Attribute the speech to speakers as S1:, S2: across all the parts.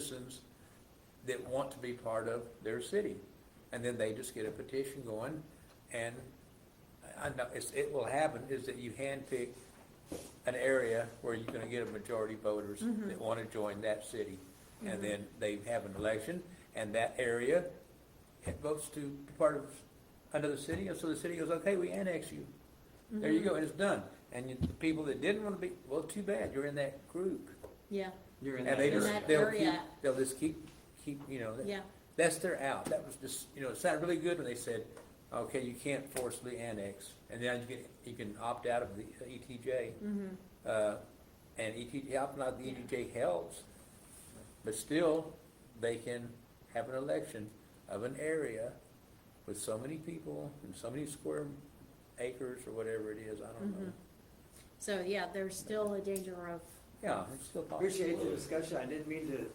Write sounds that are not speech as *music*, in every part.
S1: citizens that want to be part of their city. And then they just get a petition going, and I know, it's, it will happen, is that you handpick an area where you're gonna get a majority voters that wanna join that city. And then they have an election, and that area, it votes to be part of another city, and so the city goes, okay, we annex you. There you go, and it's done. And you- the people that didn't wanna be, well, too bad, you're in that group.
S2: Yeah,
S3: You're in
S1: And they
S2: In
S1: just,
S3: area.
S2: that
S1: they'll keep,
S2: area.
S1: they'll just keep, keep, you know, that-
S2: yeah,
S1: that's their out. That was just, you know, it sounded really good when they said, okay, you can't forcibly annex. And then you can, you can opt out of the ETJ.
S2: mm-hmm.
S1: Uh, and ETJ, opting out of the ETJ helps, but still, they can have an election of an area with so many people and so many square acres or whatever it is, I don't know.
S2: so, yeah, there's still a danger of,
S1: Yeah, it's still possible.
S3: Appreciate the discussion. I didn't mean to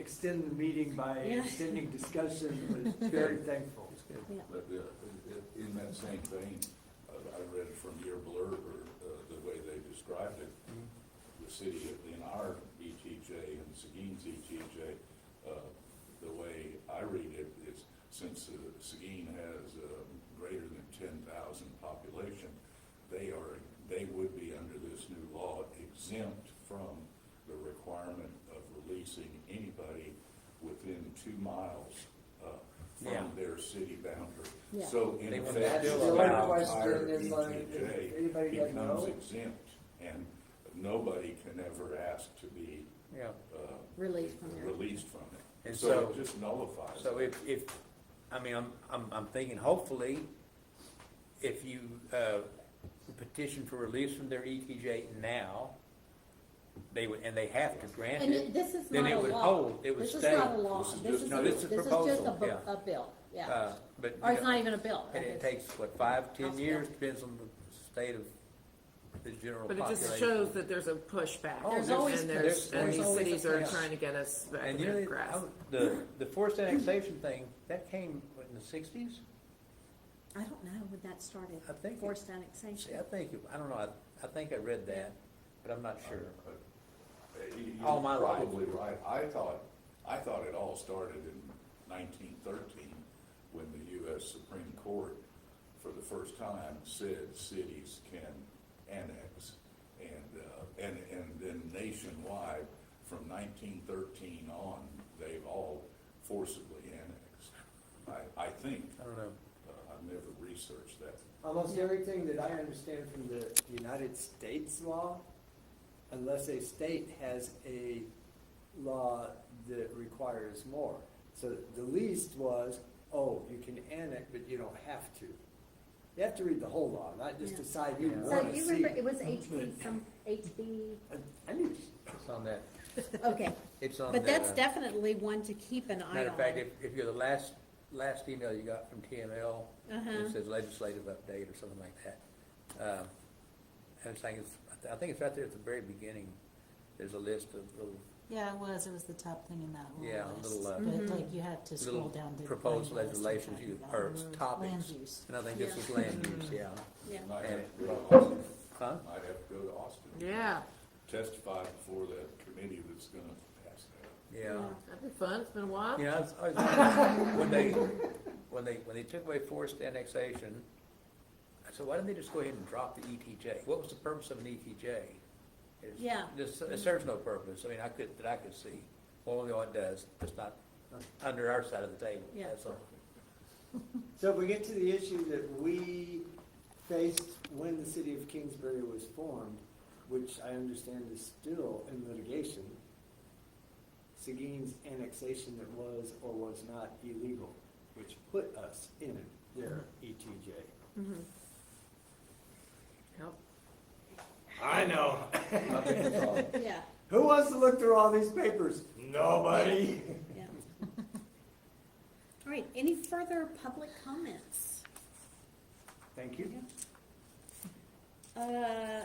S3: extend the meeting by
S2: Yeah.
S3: extending discussion, but very thankful.
S1: It's good.
S2: yeah,
S4: But uh, in- in that same vein, uh, I read it from your blurb, or uh, the way they described it, the city in our ETJ and Seguin's ETJ, uh, the way I read it is, since uh, Seguin has uh, greater than ten thousand population, they are, they would be under this new law exempt from the requirement of releasing anybody within two miles uh,
S1: Yeah.
S4: from their city boundary.
S2: Yeah.
S4: So in
S1: They
S4: effect.
S1: want to
S3: That's
S1: still
S3: the
S1: allow
S3: question
S4: entire
S3: is like,
S4: ETJ
S3: if anybody doesn't
S4: becomes
S3: know,
S4: exempt, and nobody can ever ask to be
S1: Yeah.
S4: uh,
S2: release from there.
S4: released from it.
S1: And
S4: So
S1: so-
S4: it just nullifies
S1: So
S4: it.
S1: if, if, I mean, I'm, I'm, I'm thinking hopefully, if you, uh, petition for release from their ETJ now, they would, and they have to grant
S2: And it-
S1: it,
S2: this is
S1: then
S2: not
S1: it
S2: a
S1: would
S2: law.
S1: hold, it would
S2: This
S1: stay.
S2: is not a law,
S4: This is
S2: this
S4: just-
S2: is,
S4: no,
S2: this is
S4: this
S1: is
S2: just a,
S1: proposal,
S2: bu-
S1: yeah.
S2: a bill, yeah.
S1: Uh, but.
S2: Or it's
S1: you know,
S2: not even a bill.
S1: And
S2: it's-
S1: it takes, what, five, ten
S2: House
S1: years,
S2: bill.
S1: depends on the state of the general
S5: But it
S1: population.
S5: just shows that there's a pushback.
S1: Oh,
S2: There's always
S5: And there's,
S1: pushback.
S5: and
S1: There's
S5: these
S1: always a
S5: cities are
S1: push.
S5: trying to get us back
S1: And
S5: in
S1: you
S5: their
S1: know,
S5: grasp.
S1: I- the, the forced annexation thing, that came, what, in the sixties?
S2: I don't know when that started,
S1: I think it-
S2: forced
S1: See,
S2: annexation.
S1: I think, it- I don't know, I, I think I read that, but I'm not sure.
S4: But, uh, you- you're
S1: All my life.
S4: Probably right. I thought, I thought it all started in nineteen thirteen, when the U.S. Supreme Court, for the first time, said cities can annex. And, uh, and, and then nationwide, from nineteen thirteen on, they've all forcibly annexed. I, I think,
S1: I don't know.
S4: uh, I've never researched that.
S3: almost everything that I understand from the United States law, unless a state has a law that requires more. So the least was, oh, you can annex, but you don't have to. You have to read the whole law, not just
S2: Yeah.
S3: decide you
S1: So
S2: So
S3: want to
S2: you
S3: see.
S2: remember,
S3: *laughs*
S2: it was
S1: *laughs*
S2: HB, some, HB,
S3: I- I need,
S1: It's on that,
S2: okay,
S1: it's on the.
S2: but that's definitely one to keep an eye on.
S1: Matter of fact, if, if you're the last, last email you got from TML,
S2: Uh-huh.
S1: it says legislative update or something like that. Um, And it's like, it's, I think it's right there at the very beginning, there's a list of little,
S6: Yeah, it was, it was the top thing in that
S1: Yeah,
S6: little
S1: a
S6: list.
S1: little, uh,
S6: But like you had to scroll
S1: little
S6: down to.
S1: proposed
S6: find the list and
S1: legislations,
S6: find
S1: you,
S6: that.
S1: or it's
S6: uh, Land
S1: topics.
S6: use.
S1: And I think this is land use, yeah. *laughs*
S2: Yeah.
S4: Might have to go to Austin.
S1: Huh?
S4: Might have to go to Austin.
S5: Yeah,
S4: testify before that committee that's gonna pass that.
S1: Yeah.
S5: that'd be fun, it's been a while.
S1: You know, I was- I
S2: *laughs*
S1: was- when they, when they, when they took away forced annexation, I said, why didn't they just go ahead and drop the ETJ? What was the purpose of an E ETJ? It's-
S2: Yeah.
S1: this- It serves no purpose, I mean, I could, that I could see, only what it does, it's not under our side of the table,
S2: Yeah.
S1: that's all.
S3: so if we get to the issue that we faced when the city of Kingsbury was formed, which I understand is still in litigation, Seguin's annexation that was or was not illegal, which put us in their E ETJ.
S5: Yep.
S3: I know. *laughs*
S2: Yeah,
S3: Who wants to look through all these papers? Nobody.
S2: *laughs* yeah. All right, any further public comments?
S3: Thank you.
S2: Uh,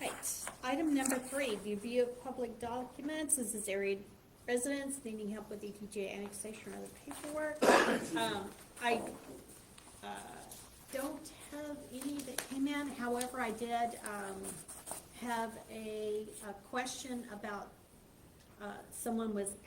S2: Right, item number three, review of public documents, this is area residents needing help with ETJ annexation or other paperwork. Um, I, uh, don't have any that came in, however, I did, um, have a, a question about, uh, someone was